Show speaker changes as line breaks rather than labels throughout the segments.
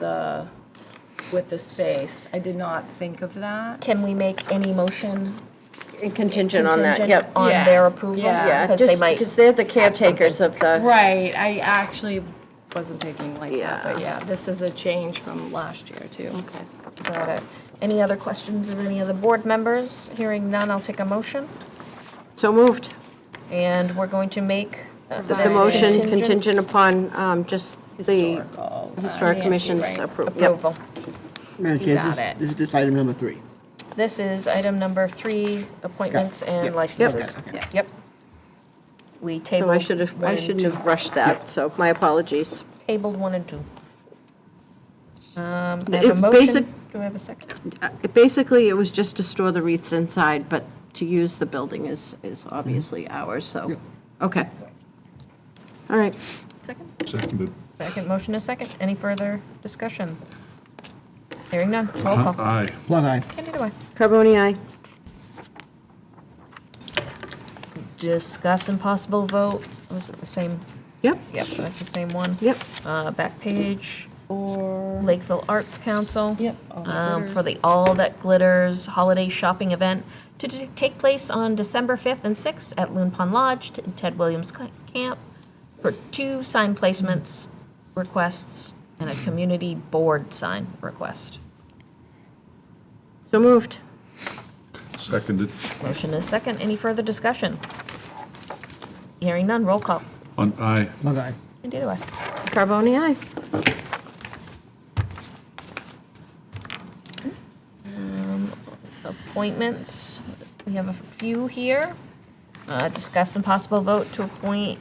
the, with the space. I did not think of that.
Can we make any motion
Contingent on that,
contingent
yep.
on
Yeah.
their approval?
Yeah.
Yeah,
Because they
just,
might,
because they're the caretakers of the,
Right, I actually wasn't thinking like that, but
Yeah.
yeah, this is a change from last year too.
got it. Any other questions of any of the board members? Hearing none, I'll take a motion.
so moved.
And we're going to make uh,
The
this
motion
contingent
contingent upon um, just the
Historical. uh,
Historic
Nancy,
Commission's
right?
approval. Yep.
approval.
Madam
You
Chair,
got
this
it.
is, this is just item number three.
This is item number three, appointments and
Yep.
licenses.
Okay, okay.
Yeah.
Yep. We
So I
tabled
should have,
one
I
and
shouldn't
two.
have rushed that, so my apologies.
Tabled one and two. Um, I have
If
a motion.
basic-
Do I have a second?
Uh, Basically, it was just to store the wreaths inside, but to use the building is, is obviously
Mm-hmm.
ours, so,
Yep.
okay. All right,
Seconded.
Second, motion is second. Any further discussion? Hearing none. Roll call.
Aye.
Plug eye.
Candida, aye.
Carboni, aye.
Discuss impossible vote. Was it the same?
Yep,
Yep, that's the same one.
yep.
Uh, back page,
Or.
Lakeville Arts Council.
Yep, All That
um, For
Glitters.
the All That Glitters Holiday Shopping Event to t- take place on December 5th and 6th at Loon Pond Lodge, t- Ted Williams Ca- Camp, for two sign placements requests and a community board sign request.
So moved.
Seconded.
Motion is second. Any further discussion? Hearing none. Roll call.
On aye.
Plug eye.
Candida, aye.
Carboni, aye.
appointments. We have a few here. Uh, Discuss and possible vote to appoint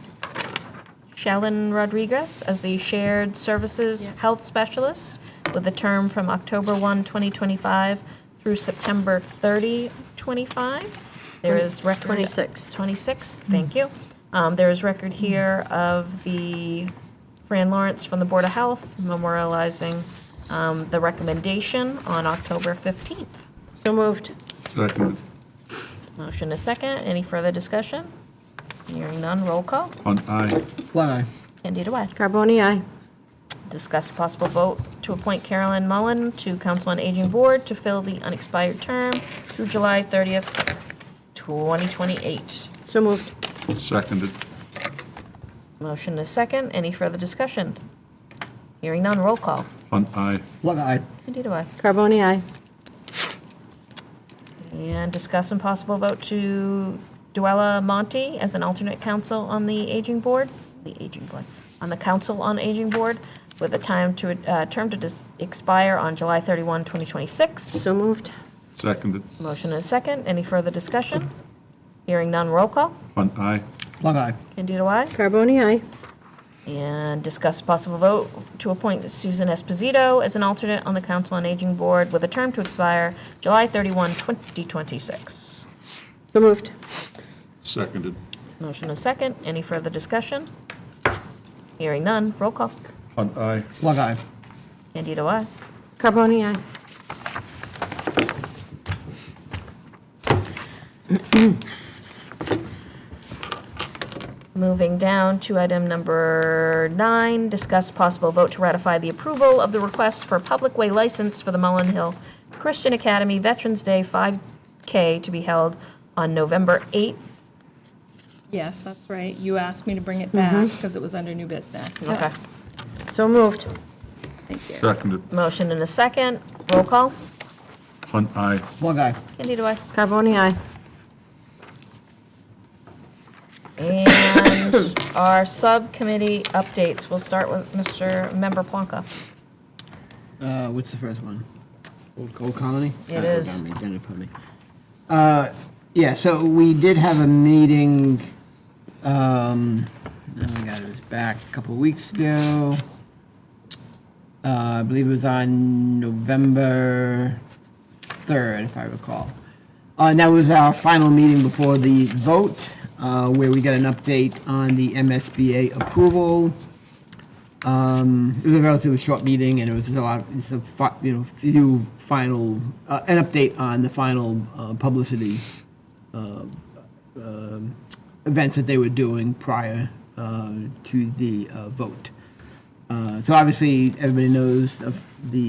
Shallon Rodriguez as the Shared Services Health Specialist with a term from October 1, 2025 through September 30, 25. There is record.
26.
26, thank you. Um, There is record here of the Fran Lawrence from the Board of Health memorializing um, the recommendation on October 15th.
So moved.
Seconded.
Motion is second. Any further discussion? Hearing none, roll call.
On aye.
Plug eye.
Candida Way.
Carboni, aye.
Discuss possible vote to appoint Carolyn Mullen to Council on Aging Board to fill the unexpired term through July 30th, 2028.
So moved.
Seconded.
Motion is second. Any further discussion? Hearing none, roll call.
On aye.
Plug eye.
Candida Way.
Carboni, aye.
And discuss and possible vote to Duella Monte as an alternate council on the aging board, the aging board, on the council on aging board with a time to, uh, term to dis- expire on July 31, 2026.
So moved.
Seconded.
Motion is second. Any further discussion? Hearing none, roll call.
On aye.
Plug eye.
Candido, I.
Carboni, aye.
And discuss possible vote to appoint Susan Esposito as an alternate on the council on aging board with a term to expire July 31, 2026.
So moved.
Seconded.
Motion is second. Any further discussion? Hearing none. Roll call.
On aye.
Plug eye.
Candido, aye.
Carboni, aye.
Moving down to item number nine, discuss possible vote to ratify the approval of the request for public way license for the Mullen Hill Christian Academy Veterans Day 5K to be held on November 8th.
Yes, that's right. You asked me to bring it
Mm-hmm.
back because it was under new business.
Okay.
So moved.
Thank you.
Seconded.
Motion and a second. Roll call.
On aye.
Plug eye.
Candido, aye.
Carboni, aye.
And our subcommittee updates. We'll start with Mr. Member Plonka.
Uh, what's the first one? Old Gold Colony?
It
Uh, hold
is.
on, I've done it for me. Uh, yeah, so we did have a meeting, um, oh my God, it was back a couple of weeks ago. Uh, I believe it was on November 3rd, if I recall. Uh, and that was our final meeting before the vote, uh, where we got an update on the MSBA approval. Um, it was a relatively short meeting, and it was just a lot. Of, it's a fi- you know few final uh, an update on the final uh, publicity uh, um events that they were doing prior uh, to the uh, vote. Uh, So obviously, everybody knows of the